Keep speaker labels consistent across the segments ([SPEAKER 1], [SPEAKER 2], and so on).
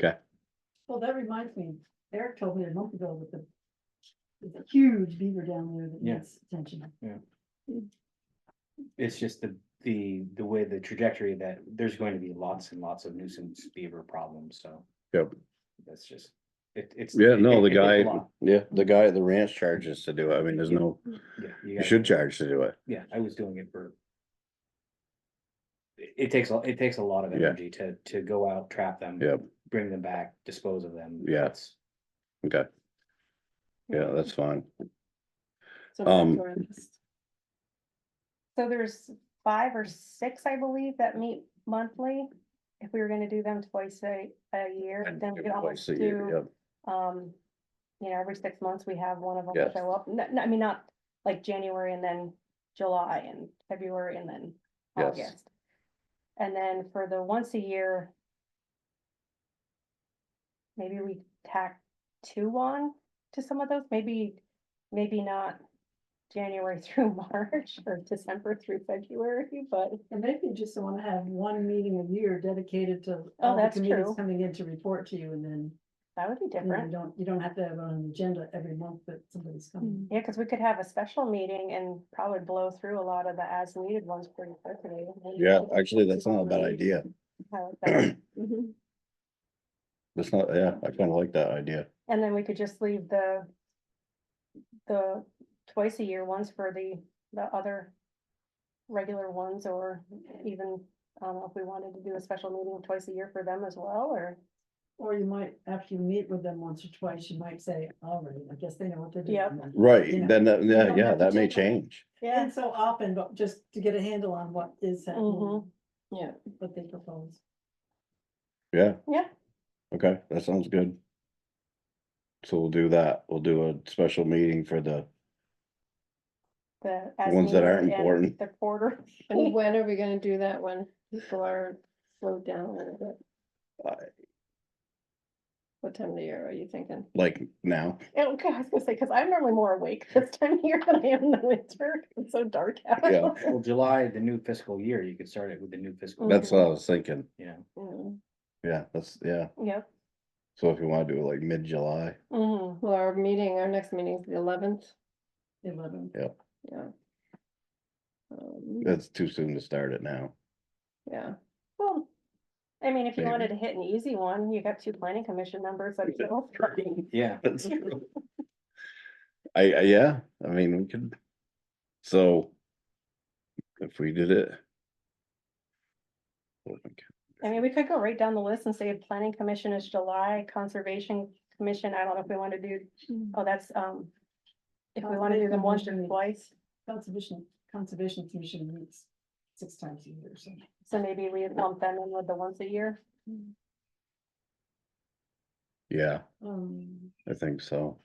[SPEAKER 1] Okay.
[SPEAKER 2] Well, that reminds me, Eric told me a month ago with the. with the huge beaver down there that
[SPEAKER 3] Yeah.
[SPEAKER 2] needs attention.
[SPEAKER 3] It's just the, the, the way the trajectory that there's going to be lots and lots of nuisance beaver problems, so.
[SPEAKER 1] Yep.
[SPEAKER 3] That's just, it, it's.
[SPEAKER 1] Yeah, no, the
[SPEAKER 3] it- it's a
[SPEAKER 1] guy,
[SPEAKER 3] lot.
[SPEAKER 1] yeah, the guy at the ranch charges to do it. I mean, there's no,
[SPEAKER 3] Yeah,
[SPEAKER 1] you
[SPEAKER 3] you
[SPEAKER 1] should
[SPEAKER 3] got,
[SPEAKER 1] charge to do it.
[SPEAKER 3] yeah, I was doing it for. It it takes, a it takes a lot of
[SPEAKER 1] Yeah.
[SPEAKER 3] energy to, to go out, trap them.
[SPEAKER 1] Yep.
[SPEAKER 3] Bring them back, dispose of them.
[SPEAKER 1] Yeah.
[SPEAKER 3] It's-
[SPEAKER 1] Okay. Yeah, that's fine.
[SPEAKER 4] So
[SPEAKER 1] Um,
[SPEAKER 4] back to our list. So there's five or six, I believe, that meet monthly. If we were gonna do them twice a, a year, then we could almost
[SPEAKER 1] Twice a year,
[SPEAKER 4] do,
[SPEAKER 1] yep.
[SPEAKER 4] um. You know, every six months we have one of them
[SPEAKER 1] Yes.
[SPEAKER 4] show up. N- n- I mean, not like January and then July and February and then
[SPEAKER 1] Yes.
[SPEAKER 4] August. And then for the once a year. Maybe we tack two on to some of those, maybe, maybe not. January through March or December through February, but
[SPEAKER 2] And maybe you just wanna have one meeting a year dedicated to. all the
[SPEAKER 4] Oh, that's
[SPEAKER 2] committees
[SPEAKER 4] true.
[SPEAKER 2] Coming in to report to you and then,
[SPEAKER 4] that would be
[SPEAKER 2] you know, you
[SPEAKER 4] different.
[SPEAKER 2] don't, you don't have to have it on an agenda every month that somebody's coming.
[SPEAKER 4] Um, Yeah, because we could have a special meeting and probably blow through a lot of the as needed ones pretty quickly. and then
[SPEAKER 1] Yeah, actually, that's not a bad idea.
[SPEAKER 4] how it goes.
[SPEAKER 1] That's not, yeah, I kind of like that idea.
[SPEAKER 4] And then we could just leave the. The twice a year ones for the, the other. Regular ones or even, I don't know if we wanted to do a special meeting twice a year for them as well, or, Hmm.
[SPEAKER 2] Or you might, after you meet with them once or twice, you might say, all right, I guess they know what they're
[SPEAKER 4] Yep.
[SPEAKER 2] doing. now."
[SPEAKER 1] Right,
[SPEAKER 2] Yeah.
[SPEAKER 1] then, that- yeah,
[SPEAKER 2] don't
[SPEAKER 1] yeah,
[SPEAKER 2] have to
[SPEAKER 1] that may
[SPEAKER 2] check on it.
[SPEAKER 1] change.
[SPEAKER 4] yeah,
[SPEAKER 2] And so often, but just to get a handle on what is happening.
[SPEAKER 4] Mhm. Yeah.
[SPEAKER 2] What they propose.
[SPEAKER 1] Yeah.
[SPEAKER 4] Yeah.
[SPEAKER 1] Okay, that sounds good. So we'll do that. We'll do a special meeting for the,
[SPEAKER 4] the. as
[SPEAKER 1] Ones that
[SPEAKER 4] needed
[SPEAKER 1] aren't
[SPEAKER 4] and
[SPEAKER 1] important.
[SPEAKER 4] The quarter,
[SPEAKER 5] And when are we gonna do that when people are slowed down a little bit? What time of the year are you thinking?
[SPEAKER 1] like, now.
[SPEAKER 4] okay, I was gonna say, because I'm normally more awake this time of year than I am in the winter, it's so dark
[SPEAKER 1] Yeah.
[SPEAKER 4] out.
[SPEAKER 3] Well, July, the new fiscal year, you could start it with the new fiscal.
[SPEAKER 1] That's what I was thinking.
[SPEAKER 3] You know,
[SPEAKER 5] Mm,
[SPEAKER 1] Yeah, that's, yeah.
[SPEAKER 4] Yep.
[SPEAKER 1] So if you want to do it like mid-July,
[SPEAKER 4] Mhm.
[SPEAKER 5] Well, our meeting, our next meeting is the eleventh,
[SPEAKER 2] Eleven.
[SPEAKER 5] yeah. Um,
[SPEAKER 1] it's too soon to start it now.
[SPEAKER 5] Yeah,
[SPEAKER 4] Well, I mean, if you
[SPEAKER 1] Maybe.
[SPEAKER 4] wanted to hit an easy one, you got two planning commission members. that
[SPEAKER 1] Yeah,
[SPEAKER 4] fill.
[SPEAKER 3] yeah,
[SPEAKER 1] That's true. I, I, yeah, I mean, we could, so. If we did it.
[SPEAKER 4] I mean, we could go right down the list and say planning commission is July, conservation commission, I don't know if we want to do, oh, that's, um. If we want to do them once or
[SPEAKER 2] Conservation.
[SPEAKER 4] twice,
[SPEAKER 2] Conservation, Conservation Commission meets six times a year, so.
[SPEAKER 4] so maybe we lump them in with the once a year.
[SPEAKER 1] Yeah,
[SPEAKER 2] Um,
[SPEAKER 1] I think so.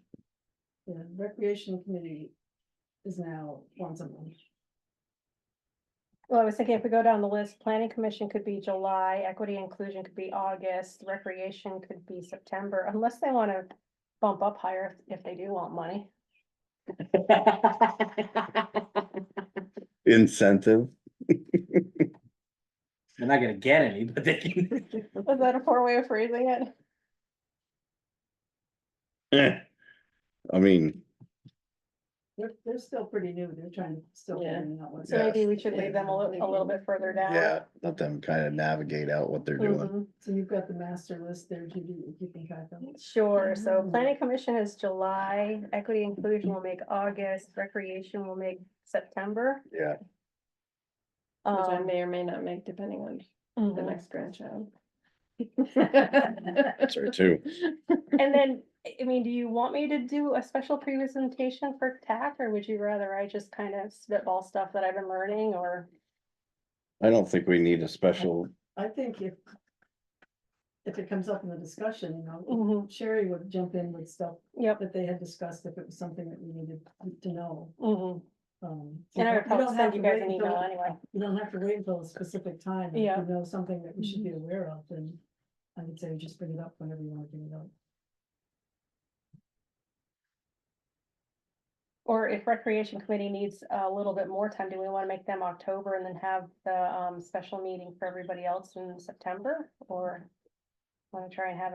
[SPEAKER 2] the Recreation Committee is now once a month.
[SPEAKER 4] Well, I was thinking if we go down the list, planning commission could be July, equity inclusion could be August, recreation could be September, unless they want to. Bump up higher if if they do want money.
[SPEAKER 1] Incentive,
[SPEAKER 3] they're not gonna get any, but they can.
[SPEAKER 4] Is that a poor way of phrasing it?
[SPEAKER 1] eh, I mean,
[SPEAKER 2] They're, they're still pretty new. They're trying to still
[SPEAKER 5] Yeah.
[SPEAKER 2] figuring out what's.
[SPEAKER 4] So maybe we should
[SPEAKER 2] yeah.
[SPEAKER 4] leave them a little, a little bit further down.
[SPEAKER 1] yeah, let them kind of navigate out what they're doing.
[SPEAKER 4] Mhm.
[SPEAKER 2] So you've got the master list there, Judy, if you can track them.
[SPEAKER 4] Sure, so
[SPEAKER 2] Mm.
[SPEAKER 4] planning commission is July, equity inclusion will make August, recreation will make September.
[SPEAKER 1] Yeah,
[SPEAKER 5] which I
[SPEAKER 4] Um,
[SPEAKER 5] may or may not make depending on the
[SPEAKER 4] mhm.
[SPEAKER 5] next grandchild.
[SPEAKER 1] that's right too.
[SPEAKER 4] And then, I I mean, do you want me to do a special presentation for TAC, or would you rather I just kind of spitball stuff that I've been learning, or?
[SPEAKER 1] I don't think we need a special,
[SPEAKER 2] I think if. If it comes up in the discussion, you know,
[SPEAKER 4] Mhm,
[SPEAKER 2] Sherry would jump in with stuff
[SPEAKER 4] Yep.
[SPEAKER 2] that they had discussed if it was something that we needed to know.
[SPEAKER 4] mhm.
[SPEAKER 2] Um,
[SPEAKER 4] And I
[SPEAKER 2] don't-
[SPEAKER 4] would probably
[SPEAKER 2] don't have
[SPEAKER 4] send you
[SPEAKER 2] to
[SPEAKER 4] guys
[SPEAKER 2] wait
[SPEAKER 4] an
[SPEAKER 2] until-
[SPEAKER 4] email anyway.
[SPEAKER 2] You don't have to wait until a specific time. and If
[SPEAKER 4] Yeah.
[SPEAKER 2] you know something that we should be aware of, then I would say just bring it up whenever you want to bring it up.
[SPEAKER 4] Or if recreation committee needs a little bit more time, do we want to make them October and then have the um special meeting for everybody else in September or? Want to try and have